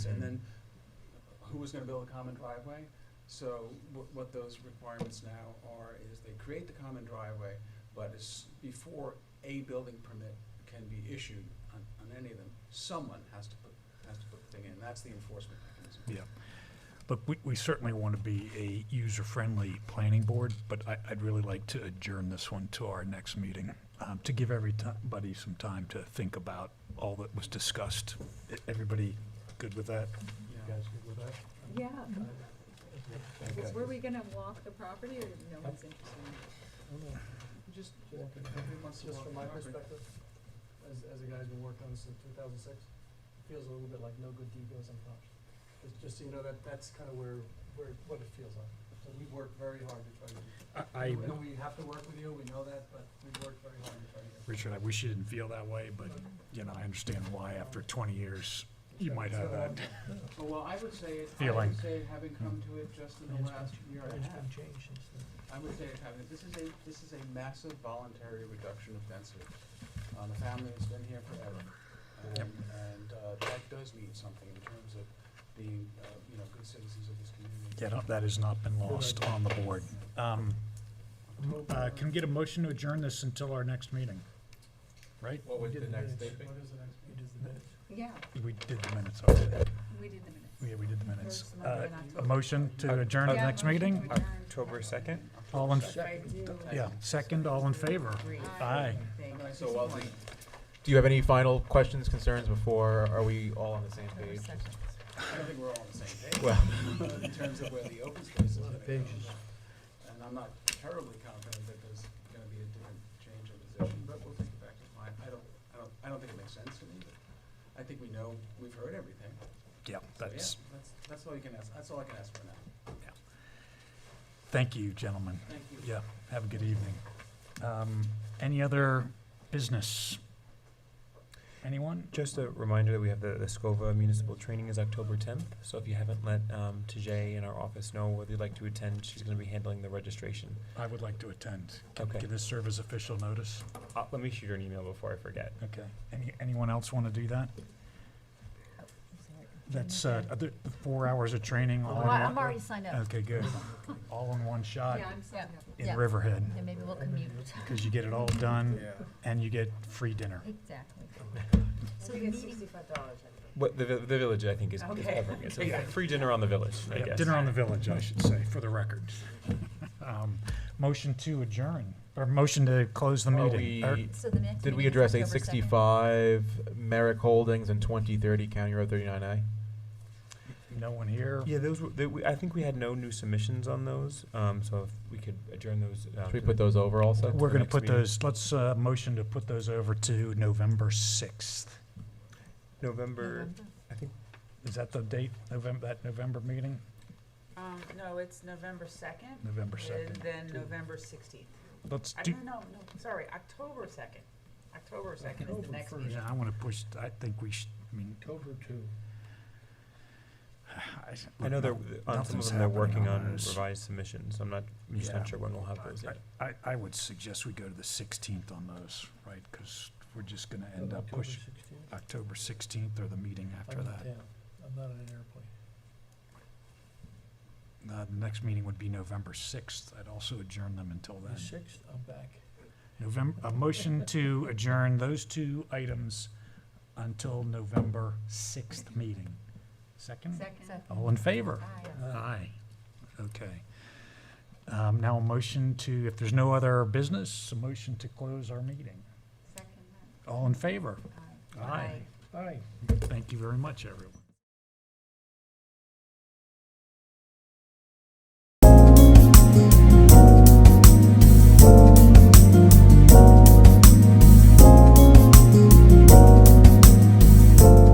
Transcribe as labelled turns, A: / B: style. A: and then who was gonna build a common driveway? So what, what those requirements now are is they create the common driveway, but it's before a building permit can be issued on, on any of them, someone has to put, has to put the thing in, that's the enforcement mechanism.
B: Yeah. Look, we, we certainly want to be a user-friendly planning board, but I, I'd really like to adjourn this one to our next meeting, um, to give everybody some time to think about all that was discussed. E- Everybody good with that?
A: Yeah.
B: good with that?
C: Yeah,
B: Okay.
C: were we gonna walk the property or no one's interested in it?
D: Just,
A: Every once in a
D: just
A: while,
D: from my
A: property-
D: perspective, as, as a guy's been working on this since two thousand six, it feels a little bit like no good deed goes unpunished. Just, just so you know, that, that's kind of where, where, what it feels like. So we've worked very hard to try to,
B: I, I-
D: we know we have to work with you, we know that, but we've worked very hard to try to. get-
B: Richard, I wish you didn't feel that way, but, you know, I understand why after twenty years, you might have that.
A: Oh, Well, I would say, it- I
B: Feeling.
A: would say, having come to it just in the last year and a half,
D: changed since then.
A: I would say it's happening. This is a, this is a massive voluntary reduction of density. Uh, the family has been here forever.
B: Yep.
A: And, and, uh, that does mean something in terms of being, uh, you know, good citizens of this community.
B: Yeah, no, that has not been lost on the board. Um, uh, can we get a motion to adjourn this until our next meeting? Right?
E: What would the next thing be?
D: What is the next meeting?
C: Yeah,
B: We did the minutes already.
C: we did the minutes.
B: Yeah, we did the
C: First
B: minutes.
C: Monday
B: Uh,
C: in
B: A
C: October.
B: motion to adjourn to the
C: Yeah,
B: next
C: motion to
B: meeting?
C: adjourn.
E: October second?
B: All in,
C: If I do,
B: yeah, second, all in favor?
C: agree.
B: Aye.
C: Thank you.
A: So while the,
E: Do you have any final questions, concerns before, are we all on the same
C: October
E: page?
C: 2nd.
A: I don't think we're all on the same page.
E: Well,
A: in terms of where the open space is gonna go. And I'm not terribly confident that there's gonna be a different change in position, but we'll take it back to mine. I don't, I don't, I don't think it makes sense to me, but I think we know, we've heard everything.
B: Yeah,
A: So, yeah,
B: that's,
A: That's, that's all you can ask, that's all I can ask for now.
B: thank you, gentlemen.
A: Thank you.
B: Yeah, have a good evening. Um, Any other business? Anyone?
E: just a reminder that we have the, the SCOVA municipal training is October tenth, so if you haven't let, um, Tajay in our office know whether you'd like to attend, she's gonna be handling the registration.
B: I would like to attend. Can-
E: Okay.
B: Can this serve as official notice?
E: Uh, let me shoot her an email before I forget.
B: Okay. Any, anyone else want to do that? That's, uh, other, four hours of training all in one?
F: I'm already signed up.
B: Okay, good. All in one shot
C: Yeah, I'm sorry.
B: in
F: yeah.
B: Riverhead,
F: And maybe we'll commute.
B: because you get it all done and you get free dinner.
F: Exactly.
C: So we get sixty-five dollars.
E: What, the, vi- the village, I think, is, is
C: Okay.
E: covering it, so free dinner on the village, I
B: Yeah,
E: guess.
B: Dinner on the village, I should say, for the record. Um, Motion to adjourn, or motion to close the
E: Are
B: meeting. Er, or-
E: we-
F: So the next
E: Did we
F: meeting
E: address
F: is
E: eight
F: October 2nd?
E: sixty-five Merrick Holdings and twenty thirty County Road thirty-nine A?
B: No one here?
G: Yeah, those were, they, we, I think we had no new submissions on those, um, so if we could adjourn those. uh,
E: Should we
G: to
E: put
G: the-
E: those um, over also?
B: We're
G: the
B: going to
G: next
B: put
G: meeting.
B: those, let's, uh, motion to put those over to November 6th.
G: November,
F: November?
G: I think,
B: Is that the date, November, that November meeting?
C: Um, no, it's November second,
B: November 2nd.
C: then November sixteenth.
B: Let's do,
C: no, no, sorry, October second. October second
D: is the next
B: yeah, I want to push, I think we should, I mean,
D: October two.
B: I.
G: I know they're, on some
B: nothing's
G: of them, they're
B: happening
G: working
B: on
G: on
B: those.
G: revised submissions, so I'm not, I'm just
B: Yeah.
G: not sure when we'll have those
B: I-
G: yet.
B: I, I would suggest we go to the 16th on those, right? Because we're just going to end up pushing October 16th or the meeting after that.
D: I'm not on an airplane.
B: Uh, The next meeting would be November 6th. I'd also adjourn them until then.
D: sixth, I'm back.
B: November, a motion to adjourn those two items until November 6th meeting. Second?
C: Second.
B: All in favor?
F: Aye.
B: Aye. Okay. Um, Now a motion to, if there's no other business, a motion to close our meeting.
C: Second.
B: All in favor?
C: Aye.
B: Aye. Thank you very much, everyone.